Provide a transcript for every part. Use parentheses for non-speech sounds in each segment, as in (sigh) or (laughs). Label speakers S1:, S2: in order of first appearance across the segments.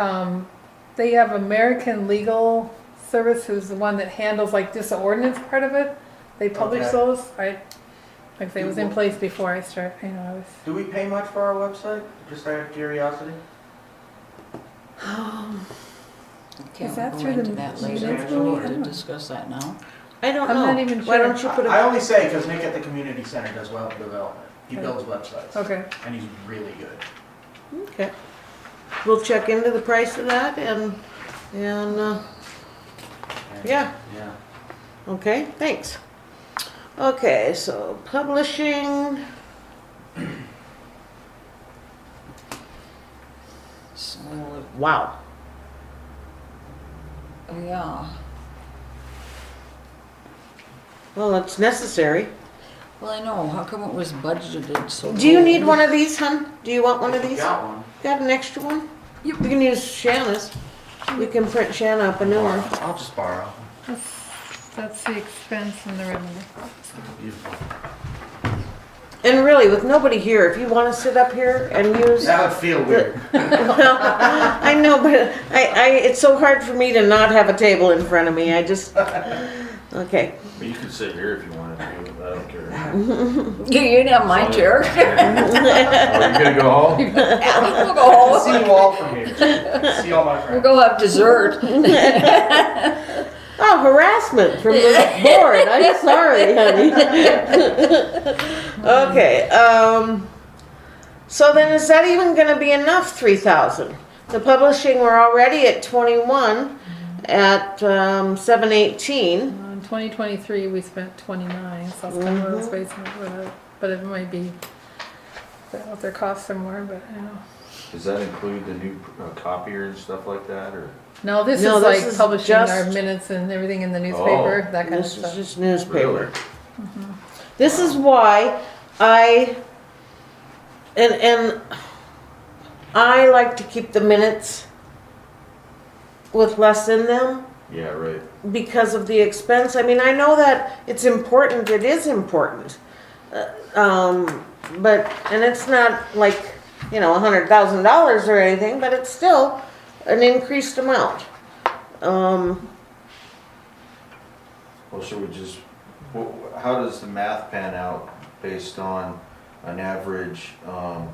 S1: Um, they have American Legal Service, who's the one that handles like just the ordinance part of it. They publish
S2: Okay.
S1: those. I, like they was in place before I start, you know, I was.
S2: Do we pay much for our website? Just out of curiosity?
S3: Okay,
S1: Is
S3: we'll
S1: that
S3: go
S1: through
S3: into
S1: the
S3: that
S2: minutes
S3: later.
S2: for me?
S3: We
S2: I
S1: don't
S3: did
S1: know.
S3: discuss that now.
S4: I don't
S1: I'm
S4: know.
S1: not even
S4: Why
S1: sure.
S4: don't you put
S2: I
S4: a,
S2: only say because Nick at the community center does web development. He builds websites
S1: Okay,
S2: and he's really good.
S4: okay. We'll check into the price of that and, and, uh,
S2: And-
S4: yeah,
S2: Yeah.
S4: okay, thanks. Okay, so publishing,
S3: So,
S4: wow.
S3: yeah,
S4: Well, it's necessary.
S3: well, I know, how come it was budgeted so?
S4: Do you
S3: low?
S4: need one of these, hun? Do you want one
S2: If
S4: of
S2: you
S4: these?
S2: Got one.
S4: Got an extra one? You can use Shanna's. We can print Shanna up a new one.
S2: I'll just borrow.
S1: that's, that's the expense and the revenue.
S2: Beautiful.
S4: And really, with nobody here, if you want to sit up here and use,
S2: That would feel
S4: (laughs)
S2: weird.
S4: I know, but I, I, it's so hard for me to not have a table in front of me. I just, okay.
S5: But you could sit here if you wanted to, but I don't care.
S3: You, you didn't have my chair. (laughs)
S5: (laughs) Are you gonna go home?
S3: We'll
S2: I'll
S4: Oh.
S3: go
S2: see
S3: home,
S2: you all from here. See all my
S3: we'll
S2: friends.
S3: go have dessert.
S4: Oh, harassment from the board. I'm sorry, honey. okay. Um, so then, is that even going to be enough? Three thousand. The publishing, we're already at twenty-one, at um, seven eighteen.
S1: In 2023, we spent 29, so it's kind of
S4: Mm-hmm.
S1: one of those ways, uh, but it might be, what their costs are more, but I don't know.
S5: Does that include the new uh, copier and stuff like that, or?
S1: No, this
S4: No,
S1: is
S4: this
S1: like
S4: is
S1: publishing our
S4: just-
S1: minutes and everything in the newspaper,
S5: Oh.
S1: that kind of
S4: This
S1: stuff.
S4: is just newspaper.
S5: Really?
S4: This is why I and and I like to keep the minutes with less in them
S5: Yeah, right.
S4: because of the expense. I mean, I know that it's important. It is important, Uh, um, but and it's not like you know a hundred thousand dollars or anything, but it's still an increased amount. Um,
S5: Well, should we just, wh- wh- how does the math pan out based on an average, um,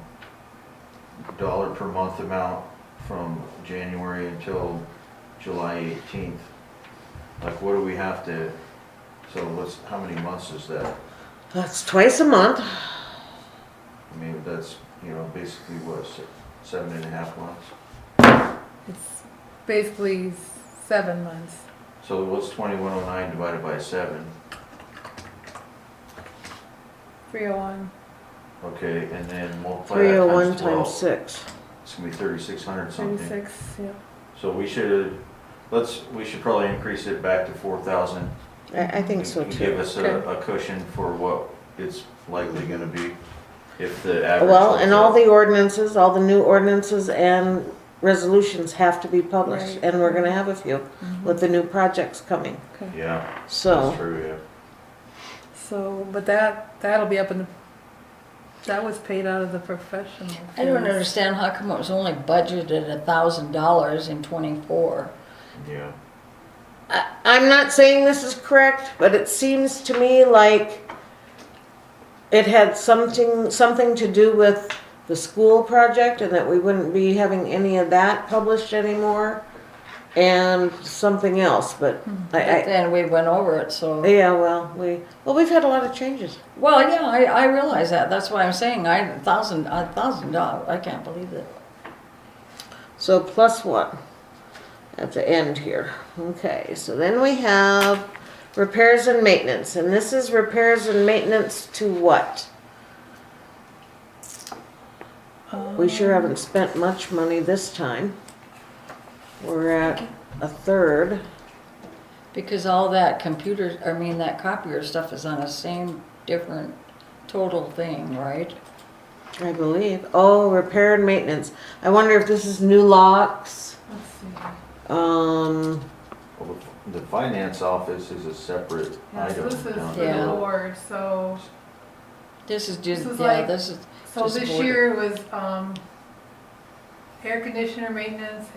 S5: dollar per month amount from January until July eighteenth? Like, what do we have to, so what's, how many months is that?
S4: that's twice a month.
S5: I mean, that's, you know, basically what, se- seven and a half months?
S1: It's basically seven months.
S5: So what's twenty-one oh nine divided by seven?
S1: 301.
S5: Okay, and then multiply
S4: Three
S5: that
S4: oh one
S5: times
S4: times
S5: twelve.
S4: six.
S5: It's gonna be thirty-six hundred something.
S1: 36, yeah.
S5: So we should, let's, we should probably increase it back to four thousand.
S4: I, I think so
S5: Give
S4: too.
S5: us a,
S1: Okay.
S5: a cushion for what it's likely gonna be if the average.
S4: Well,
S5: holds
S4: and
S5: up.
S4: all the ordinances, all the new ordinances and resolutions have to be published,
S1: Right.
S4: and we're gonna have a few with the new projects coming,
S1: Okay.
S5: Yeah, that's
S4: so.
S5: true, yeah.
S1: So, but that, that'll be up in the, that was paid out of the professional.
S3: I don't
S1: fees.
S3: understand how come it was only budgeted a thousand dollars in twenty-four.
S5: Yeah,
S4: I, I'm not saying this is correct, but it seems to me like it had something, something to do with the school project and that we wouldn't be having any of that published anymore and something else, but I,
S3: But
S4: I,
S3: then we went over it, so,
S4: Yeah, well, we, well, we've had a lot of changes.
S3: well, yeah, I, I realize that, that's why I'm saying I, a thousand, a thousand dollars, I can't believe it.
S4: So plus one at the end here. Okay, so then we have repairs and maintenance, and this is repairs and maintenance to what? We sure haven't spent much money this time. We're at a third.
S3: Because all that computer, I mean, that copier stuff is on the same different total thing, right?
S4: I believe. Oh, repair and maintenance. I wonder if this is new locks.
S1: Let's see.
S4: Um,
S5: well, the- the finance office is a separate
S1: Yeah, so
S5: item
S1: this is
S5: down
S1: the
S3: Yeah.
S5: below.
S1: board, so,
S3: This is
S1: This
S3: just,
S1: is
S3: yeah,
S1: like-
S3: this is
S1: so
S3: Just
S1: this
S3: board.
S1: year was, um, air conditioner maintenance